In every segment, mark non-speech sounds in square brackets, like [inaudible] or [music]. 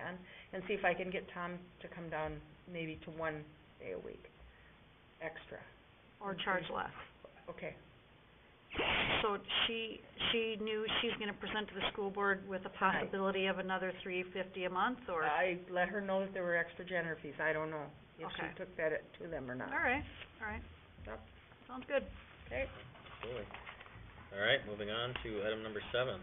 on, and see if I can get Tom to come down maybe to one day a week, extra. or charge less. Okay, So she, she knew she's gonna present to the school board with a possibility of another three fifty a month, or? I let her know that there were extra janitor fees, I don't know if she Okay. took that to them or not. All right, all right. Yep. Sounds good. Okay, Absolutely. All right, moving on to item number seven.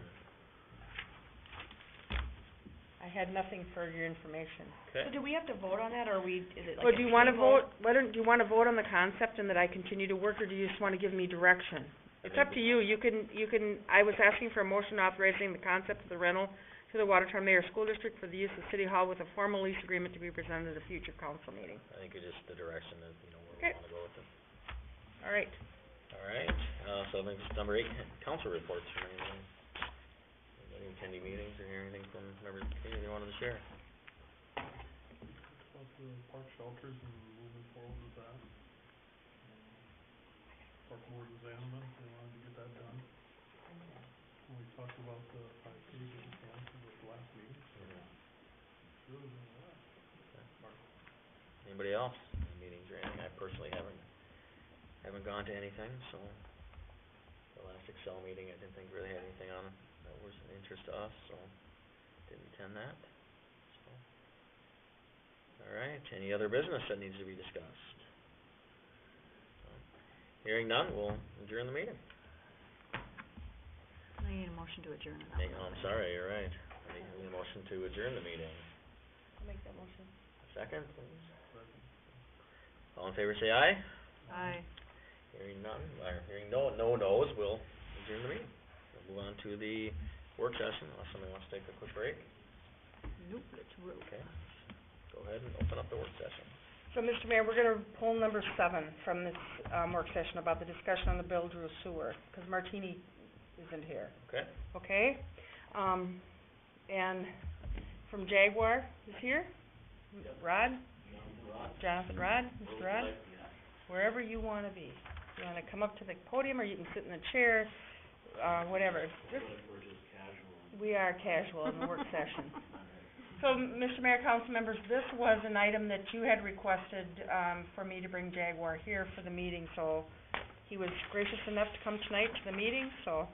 I had nothing for your information. Okay. So do we have to vote on that, or we, is it like Well, a do you wanna table? vote, why don't, do you wanna vote on the concept and that I continue to work, or do you just wanna give me direction? It's up to you, you can, you can, I was asking for a motion authorizing the concept of the rental to the Watertown Mayor School District for the use of City Hall with a formal lease agreement to be presented at a future council meeting. I think it's just the direction that, you know, where Okay. we wanna go with it. All right, All right, uh, so I think it's number eight, council reports from anyone. Any attending meetings or hear anything from members of the community they wanted to share? about the park shelters and moving forward with that. Um, Park board was adamant, they wanted to get that done. And we talked about the five Ks that we planned for the last meeting, so really, uh, Anybody else, Any meetings or anything? I personally haven't, haven't gone to anything, so. The last Excel meeting, I didn't think really had anything on it that was of interest to us, so didn't attend that, so. All right, any other business that needs to be discussed? So, Hearing none, we'll adjourn the meeting. I need a motion to adjourn. Hey, oh, I'm sorry, you're right. I need a motion to adjourn the meeting. I'll make that motion. Second, please. but All in favor, say aye. Aye. Hearing none, or hearing no, no no's, we'll adjourn the meeting. We'll move on to the work session, unless somebody wants to take a quick break. Nope, it's rude. Okay. Go ahead and open up the work session. So, Mr. Mayor, we're gonna pull number seven from this, um, work session about the discussion on the Bill Drew sewer, 'cause Martini isn't here. Okay? okay? Um, and from Jaguar is here? Rod? Jonathan Rod, Mr. Rod? Wherever you wanna be. You wanna come up to the podium or you can sit in the chair, uh, whatever. Just- We are casual in the work session. [laughs] So, Mr. Mayor, council members, this was an item that you had requested, um, for me to bring Jaguar here for the meeting, so he was gracious enough to come tonight to the meeting, so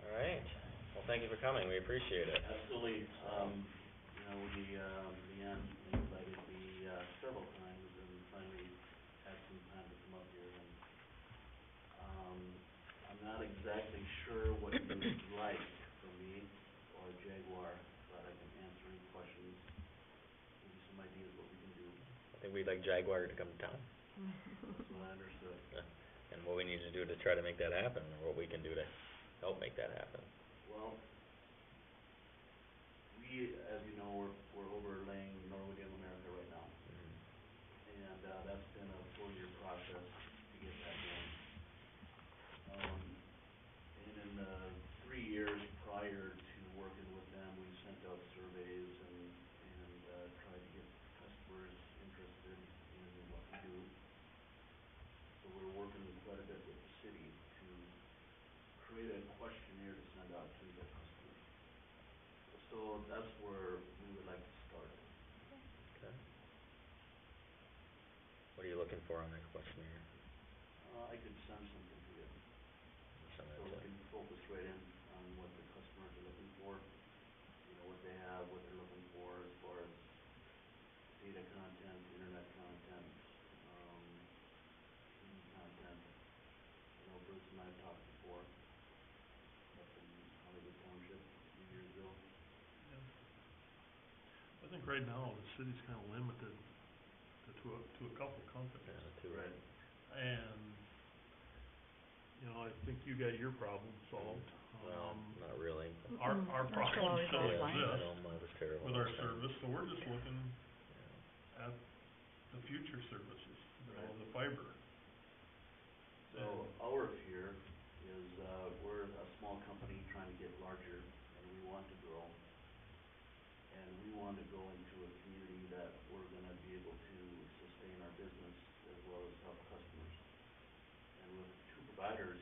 All right. Well, thank you for coming, we appreciate it. Absolutely, um, you know, we, um, began invited me, uh, several times and finally had some time to come up here and, um, I'm not exactly sure what you would like from me or Jaguar, but I can answer any questions, give you some ideas what we can do, I think we'd like Jaguar to come to town, that's what I understood. and what we need to do to try to make that happen, or what we can do to help make that happen. Well, we, as you know, we're, we're overlaying Norwood and America right now. Mhm. and, uh, that's been a four-year process to get that done. Um, and in the three years prior to working with them, we sent out surveys and, and, uh, tried to get customers interested in what we do. So we're working quite a bit with the city to create a questionnaire to send out to the customers. So that's where we would like to start. Okay. What are you looking for on that questionnaire? Uh, I could send something to you. Send that So to- we can focus right in on what the customers are looking for, you know, what they have, what they're looking for as far as data content, internet content, um, TV content. You know, Bruce and I have talked before, up in Hollywood Township, a few years ago. I think right now, the city's kinda limited to, to a, to a couple Yeah, companies. two, right? And, you know, I think you got your problem solved, Well, um, not really. our, Mm-mm. our That's problem always still our Yeah, line. I exists know, mine was terrible. with our last time. service, so we're just looking Yeah. at the future services, you know, the fiber. So our fear is, uh, we're a small company trying to get larger and we want to grow. And we want to go into a community that we're gonna be able to sustain our business as well as help customers. And with two providers,